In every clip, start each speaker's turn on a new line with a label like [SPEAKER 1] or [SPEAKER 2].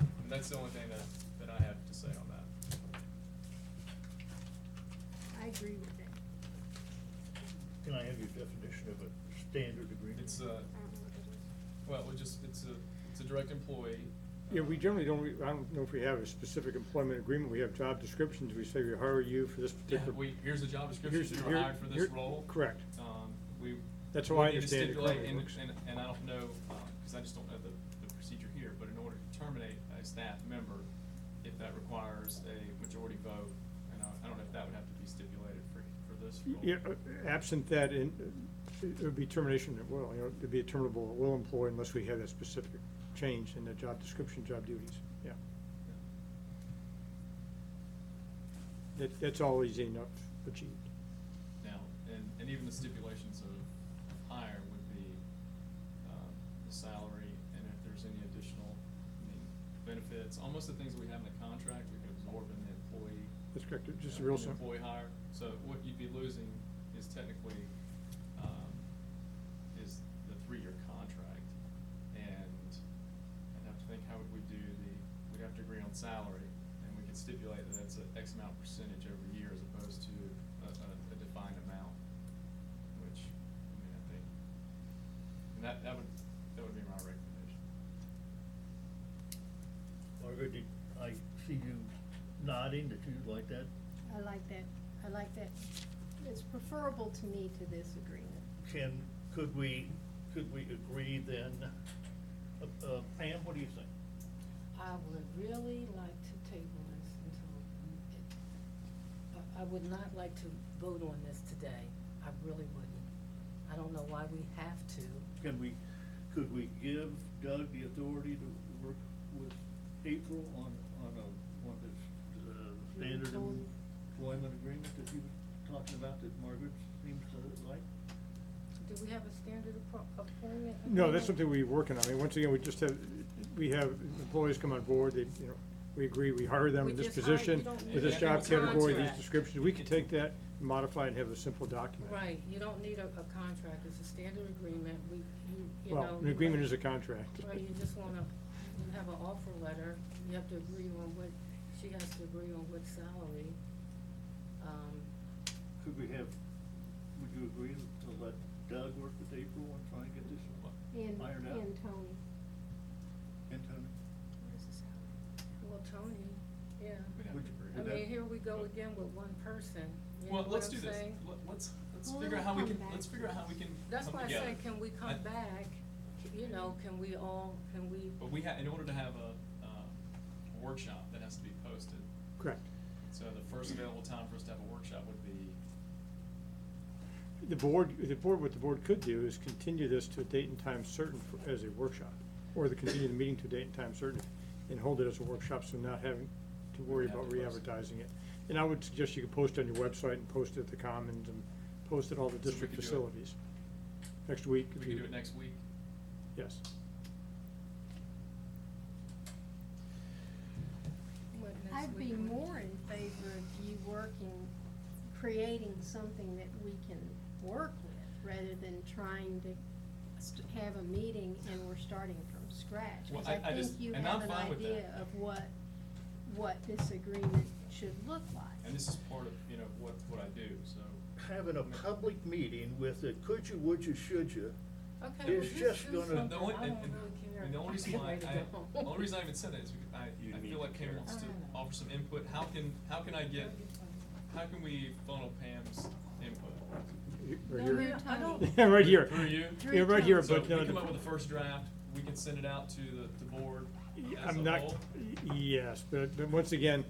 [SPEAKER 1] Uh, that's the only thing that, that I have to say on that.
[SPEAKER 2] I agree with it.
[SPEAKER 3] Can I have your definition of a standard agreement?
[SPEAKER 1] It's a,
[SPEAKER 2] I don't know what it is.
[SPEAKER 1] well, it just, it's a, it's a direct employee.
[SPEAKER 4] Yeah, we generally don't, re- I don't know if we have a specific employment agreement, we have job descriptions, we say we hire you for this
[SPEAKER 1] Yeah,
[SPEAKER 4] particular.
[SPEAKER 1] we, here's the job
[SPEAKER 4] Here's
[SPEAKER 1] description,
[SPEAKER 4] the-
[SPEAKER 1] you were
[SPEAKER 4] here-
[SPEAKER 1] hired for this
[SPEAKER 4] here-
[SPEAKER 1] role.
[SPEAKER 4] Correct.
[SPEAKER 1] Um, we.
[SPEAKER 4] That's
[SPEAKER 1] we
[SPEAKER 4] how I
[SPEAKER 1] need to
[SPEAKER 4] understand it
[SPEAKER 1] stipulate,
[SPEAKER 4] currently
[SPEAKER 1] and-
[SPEAKER 4] works.
[SPEAKER 1] And, and I don't know, because I just don't know the, the procedure here, but in order to terminate a staff member, if that requires a majority vote, and I, I don't know if that would have to be stipulated for, for this role.
[SPEAKER 4] Yeah, uh, absent that, in- it would be termination at will, you know, it'd be a terminable at will employee unless we have that specific change in the job description, job duties, yeah. That, that's all easy enough achieved.
[SPEAKER 1] Now, and, and even the stipulations of hire would be, um, the salary, and if there's any additional, I mean, benefits, almost the things we have in the contract, we could absorb in the employee.
[SPEAKER 4] That's correct, it's just
[SPEAKER 1] uh,
[SPEAKER 4] real
[SPEAKER 1] in the
[SPEAKER 4] simple.
[SPEAKER 1] Employee hire, so what you'd be losing is technically, um, is the three-year contract. And I'd have to think, how would we do the, we'd have to agree on salary, and we could stipulate that that's a X amount percentage every year as opposed to a, a, a defined amount, which, I mean, I think, and that, that would, that would be my recommendation.
[SPEAKER 3] Margaret, did I see you nodding that you like that?
[SPEAKER 2] I like that, I like that. It's preferable to me to this agreement.
[SPEAKER 3] Can, could we, could we agree then? Uh, uh, Pam, what do you think?
[SPEAKER 5] I would really like to table this until, I, I would not like to vote on this today. I really wouldn't. I don't know why we have to.
[SPEAKER 3] Can we, could we give Doug the authority to work with April on, on a, on this, uh, standard
[SPEAKER 5] Employee.
[SPEAKER 3] employment agreement that you were talking about that Margaret seems to like?
[SPEAKER 5] Do we have a standard appro- appointment?
[SPEAKER 4] No, that's something
[SPEAKER 5] agreement?
[SPEAKER 4] we're working on. I mean, once again, we just have, we have employees come on board, they, you know, we agree, we hire them
[SPEAKER 5] We
[SPEAKER 4] in this
[SPEAKER 5] just hire-
[SPEAKER 4] position,
[SPEAKER 5] you don't
[SPEAKER 4] with this
[SPEAKER 1] need
[SPEAKER 4] job
[SPEAKER 1] a
[SPEAKER 4] category, these
[SPEAKER 5] contract.
[SPEAKER 4] descriptions. We could take that, modify it, and have a simple document.
[SPEAKER 5] Right, you don't need a, a contract, it's a standard agreement, we, you, you know.
[SPEAKER 4] Well, an agreement is a contract.
[SPEAKER 5] Right, you just wanna, you have an offer letter, you have to agree on what, she has to agree on what salary. Um,
[SPEAKER 3] Could we have, would you agree to let Doug work with April and try and get this
[SPEAKER 2] And,
[SPEAKER 3] ironed out?
[SPEAKER 2] and Tony.
[SPEAKER 3] And Tony?
[SPEAKER 5] Where's this at? Well, Tony, yeah.
[SPEAKER 1] We'd have to
[SPEAKER 3] Would-
[SPEAKER 1] agree.
[SPEAKER 5] I
[SPEAKER 3] would that-
[SPEAKER 5] mean, here we go again with one person, you know
[SPEAKER 1] Well,
[SPEAKER 5] what
[SPEAKER 1] let's
[SPEAKER 5] I'm
[SPEAKER 1] do this.
[SPEAKER 5] saying?
[SPEAKER 1] Let- Let's, let's
[SPEAKER 2] Well,
[SPEAKER 1] figure out how
[SPEAKER 2] it'll
[SPEAKER 1] we
[SPEAKER 2] come
[SPEAKER 1] can,
[SPEAKER 2] back
[SPEAKER 1] let's
[SPEAKER 2] to
[SPEAKER 1] figure out
[SPEAKER 2] us.
[SPEAKER 1] how we can come together.
[SPEAKER 5] That's why I say, can we
[SPEAKER 1] I-
[SPEAKER 5] come back, you know, can we all, can we?
[SPEAKER 1] But we ha in order to have a, uh, a workshop, that has to be posted.
[SPEAKER 4] Correct.
[SPEAKER 1] So the first available time for us to have a workshop would be,
[SPEAKER 4] The board, the board, what the board could do is continue this to a date and time certain for- as a workshop, or the continue the meeting to a date and time certain, and hold it as a workshop, so not having to worry
[SPEAKER 1] Have
[SPEAKER 4] about
[SPEAKER 1] to post it.
[SPEAKER 4] re-advertising it. And I would suggest you could post it on your website and post it at the Commons and post it all the
[SPEAKER 1] So we
[SPEAKER 4] district
[SPEAKER 1] could do it-
[SPEAKER 4] facilities. Next week.
[SPEAKER 1] we
[SPEAKER 4] if
[SPEAKER 1] could
[SPEAKER 4] you-
[SPEAKER 1] do it next week.
[SPEAKER 4] Yes.
[SPEAKER 5] what, next
[SPEAKER 2] I'd be
[SPEAKER 5] week?
[SPEAKER 2] more in favor of you working, creating something that we can work with, rather than trying to st- have a meeting and we're starting from scratch.
[SPEAKER 1] Well,
[SPEAKER 2] Because
[SPEAKER 1] I- I just-
[SPEAKER 2] think you
[SPEAKER 1] and
[SPEAKER 2] have
[SPEAKER 1] I'm
[SPEAKER 2] an
[SPEAKER 1] fine with that.
[SPEAKER 2] idea of what, what this agreement should look like.
[SPEAKER 1] And this is part of, you know, what, what I do, so.
[SPEAKER 3] Having a public meeting with a could you, would you, should you?
[SPEAKER 5] Okay, well,
[SPEAKER 3] It's
[SPEAKER 5] just
[SPEAKER 3] just
[SPEAKER 5] do
[SPEAKER 3] gonna-
[SPEAKER 5] something, I
[SPEAKER 1] And
[SPEAKER 5] don't
[SPEAKER 1] the only,
[SPEAKER 5] really
[SPEAKER 1] and, and-
[SPEAKER 5] care.
[SPEAKER 1] and the only
[SPEAKER 5] I'm
[SPEAKER 1] reason why
[SPEAKER 5] ready to
[SPEAKER 1] I,
[SPEAKER 5] go home.
[SPEAKER 1] the only reason I even said that is because
[SPEAKER 6] You
[SPEAKER 1] I, I
[SPEAKER 6] need
[SPEAKER 1] feel like
[SPEAKER 6] to
[SPEAKER 1] Pam
[SPEAKER 6] care.
[SPEAKER 1] wants to
[SPEAKER 5] I don't know.
[SPEAKER 1] offer some input. How can, how can I get, how can we funnel Pam's input?
[SPEAKER 4] You-
[SPEAKER 5] No,
[SPEAKER 4] Right
[SPEAKER 5] no,
[SPEAKER 4] here.
[SPEAKER 2] you're-
[SPEAKER 5] I don't-
[SPEAKER 4] Yeah, right here.
[SPEAKER 1] Through you?
[SPEAKER 2] Through
[SPEAKER 4] Yeah, right here,
[SPEAKER 2] Tom.
[SPEAKER 1] So
[SPEAKER 4] but.
[SPEAKER 1] we
[SPEAKER 4] no,
[SPEAKER 1] come
[SPEAKER 4] the-
[SPEAKER 1] up with a first draft, we can send it out to the, the board as a
[SPEAKER 4] I'm not,
[SPEAKER 1] whole.
[SPEAKER 4] yes, but, but once again,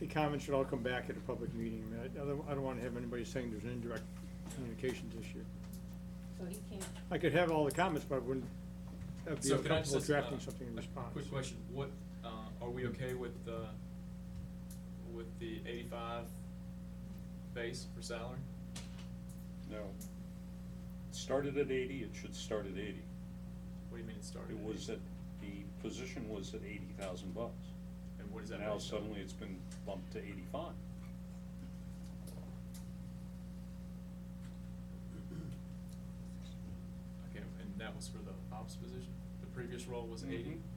[SPEAKER 4] the comments should all come back at a public meeting. I mean, I don't, I don't wanna have anybody saying there's an indirect communications issue.
[SPEAKER 5] So he can't.
[SPEAKER 4] I could have all the comments, but I wouldn't, I'd be
[SPEAKER 1] So can I
[SPEAKER 4] uncomfortable
[SPEAKER 1] just, uh,
[SPEAKER 4] drafting something in
[SPEAKER 1] a
[SPEAKER 4] response.
[SPEAKER 1] Quick question, what, uh, are we okay with, uh, with the eighty-five base for salary?
[SPEAKER 6] No. It Started at eighty, it should start at eighty.
[SPEAKER 1] What do you mean it started?
[SPEAKER 6] It was at,
[SPEAKER 1] 80?
[SPEAKER 6] the position was at eighty thousand bucks.
[SPEAKER 1] And what is that?
[SPEAKER 6] Now
[SPEAKER 1] based on?
[SPEAKER 6] suddenly it's been bumped to eighty-five.
[SPEAKER 1] Okay, and that was for the ops position? The previous role was eighty?
[SPEAKER 6] Mhm.